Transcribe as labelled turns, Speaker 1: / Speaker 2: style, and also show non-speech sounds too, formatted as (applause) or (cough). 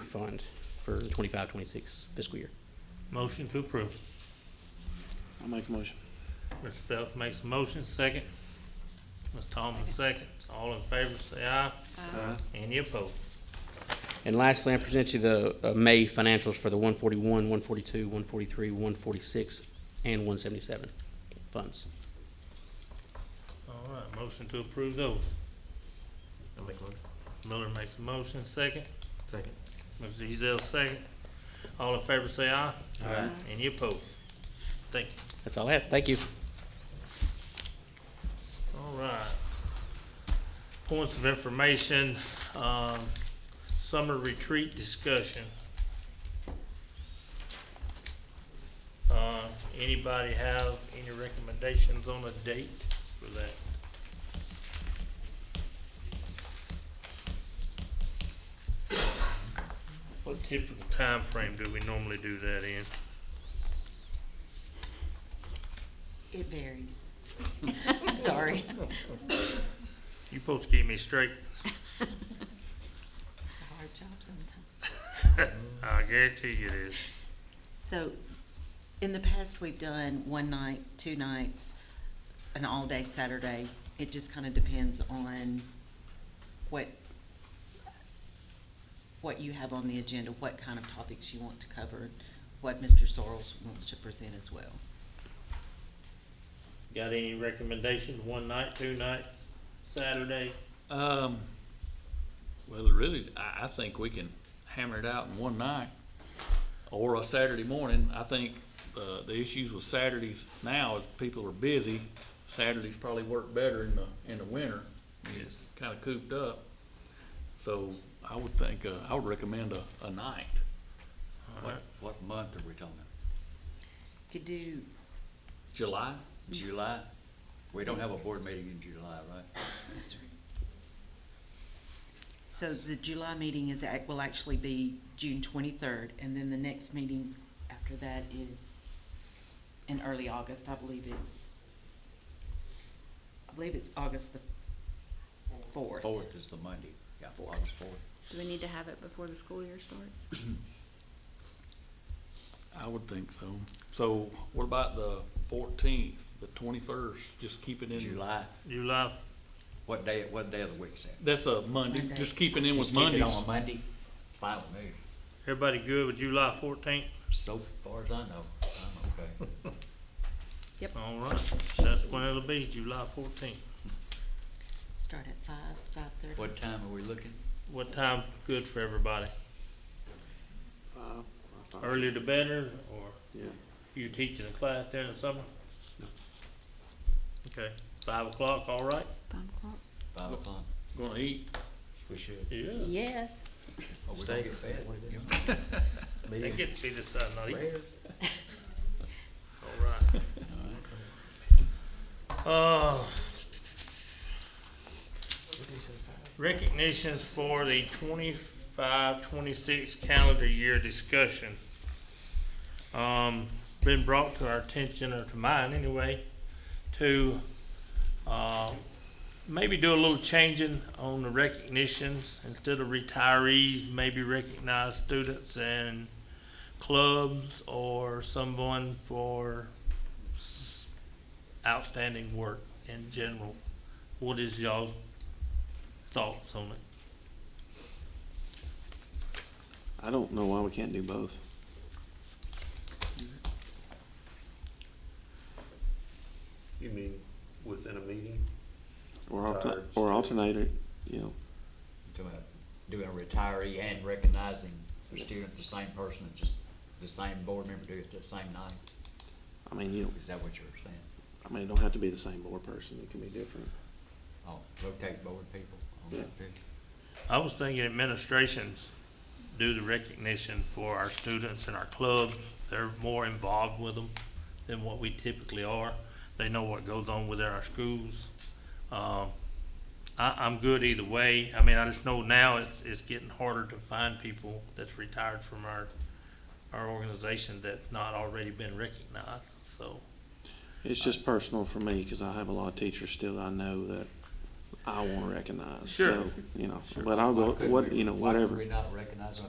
Speaker 1: fund for the 25, 26 fiscal year.
Speaker 2: Motion to approve.
Speaker 3: I'll make a motion.
Speaker 2: Mr. Phelps makes a motion, second. Ms. Thomas, second. All in favor, say aye. Any opposed?
Speaker 1: And lastly, I present you the uh, May financials for the 141, 142, 143, 146, and 177 funds.
Speaker 2: All right, motion to approve those.
Speaker 4: I'll make a motion.
Speaker 2: Miller makes a motion, second.
Speaker 4: Second.
Speaker 2: Mr. Ezell, second. All in favor, say aye.
Speaker 3: Aye.
Speaker 2: Any opposed? Thank you.
Speaker 1: That's all I have. Thank you.
Speaker 2: All right. Points of information, um, summer retreat discussion. Uh, anybody have any recommendations on a date for that? What typical time frame do we normally do that in?
Speaker 5: It varies. (laughs) I'm sorry.
Speaker 2: You supposed to keep me straight, (laughs)
Speaker 5: It's a hard job sometimes.
Speaker 2: I guarantee you it is.
Speaker 5: So, in the past, we've done one night, two nights, an all-day Saturday. It just kind of depends on what, what you have on the agenda, what kind of topics you want to cover, what Mr. Sorrells wants to present as well.
Speaker 2: Got any recommendations, one night, two nights, Saturday?
Speaker 6: Um, well, really, I, I think we can hammer it out in one night or a Saturday morning. I think, uh, the issues with Saturdays now is people are busy. Saturdays probably work better in the, in the winter. It's kinda cooped up. So I would think, uh, I would recommend a, a night.
Speaker 2: Alright.
Speaker 7: What, what month are we talking?
Speaker 5: Could do,
Speaker 6: July?
Speaker 7: July? We don't have a board meeting in July, right?
Speaker 5: I'm sorry. So the July meeting is, act- will actually be June twenty-third, and then the next meeting after that is in early August, I believe it's, I believe it's August the fourth.
Speaker 7: Fourth is the Monday, yeah, August fourth.
Speaker 8: Do we need to have it before the school year starts?
Speaker 6: I would think so. So what about the fourteenth, the twenty-first? Just keep it in.
Speaker 7: July,
Speaker 2: July,
Speaker 7: what day, what day of the week is that?
Speaker 6: That's a Monday.
Speaker 5: Monday.
Speaker 6: Just keep it in with
Speaker 7: Just keep it
Speaker 6: Mondays.
Speaker 7: On a Monday, fine with me,
Speaker 2: everybody good with July fourteenth?
Speaker 7: so far as I know, I'm
Speaker 3: (laughs)
Speaker 7: okay.
Speaker 2: All right, that's when it'll be, July fourteenth.
Speaker 5: Start at five, five-thirty.
Speaker 7: What time are we looking?
Speaker 2: What time good for everybody?
Speaker 3: Five, five, five.
Speaker 2: Earlier the better, or
Speaker 3: Yeah,
Speaker 2: you teaching a class during the summer? Okay, five o'clock, all right?
Speaker 8: Five o'clock?
Speaker 7: Five o'clock?
Speaker 6: Gonna eat
Speaker 4: We should.
Speaker 2: Yeah.
Speaker 8: Yes.
Speaker 7: Oh, we don't get fed. (laughs)
Speaker 2: They
Speaker 4: (laughs) Meeting.
Speaker 2: get to see the sun, not eat.
Speaker 4: Rare.
Speaker 2: All right. Uh, recognitions for the 25-26 calendar year discussion. Um, been brought to our attention, or to mine anyway, to, uh, maybe do a little changing on the recognitions. Instead of retirees, maybe recognize students and clubs or someone for s- outstanding work in general. What is y'all's thoughts on it?
Speaker 3: I don't know why we can't do both.
Speaker 4: You mean within a meeting?
Speaker 3: Or alter,
Speaker 4: Ours.
Speaker 3: or alternate it, you know,
Speaker 7: Talking about Doing a retiree and recognizing the student, the same person, just the same board member do it the same night,
Speaker 3: I mean, you don't,
Speaker 7: is that what you're saying?
Speaker 3: I mean, it don't have to be the same board person, it can be different.
Speaker 7: Oh, rotate board people on that field.
Speaker 2: I was thinking administrations do the recognition for our students and our clubs. They're more involved with them than what we typically are. They know what goes on within our schools. Um, I, I'm good either way. I mean, I just know now it's, it's getting harder to find people that's retired from our, our organization that's not already been recognized, so.
Speaker 3: It's just personal for me, cause I have a lot of teachers still that I know that I wanna recognize,
Speaker 2: Sure.
Speaker 3: so, you know, but I'll go,
Speaker 7: Why couldn't
Speaker 3: what,
Speaker 7: we-
Speaker 3: you know,
Speaker 7: why couldn't
Speaker 3: whatever.
Speaker 7: we not recognize